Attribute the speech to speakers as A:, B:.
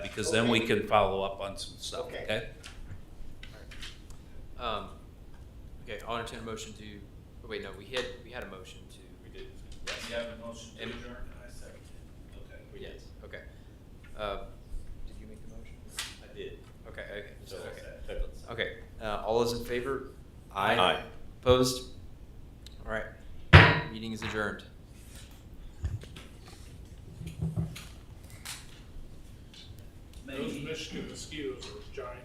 A: because then we can follow up on some stuff,
B: Okay.
A: okay?
C: Um, okay, I'll entertain a motion to, oh, wait, no, we had, we had a motion to. We did.
A: You have a motion
C: to adjourn?
A: I second it.
C: Yes, okay. Uh, did you make the motion?
A: I did.
C: Okay, okay,
A: So,
C: okay.
A: that's-
C: Okay, uh, all those in favor?
D: Aye.
C: Opposed? All right, meeting is adjourned.
E: Those Michigan mosquitoes are giant.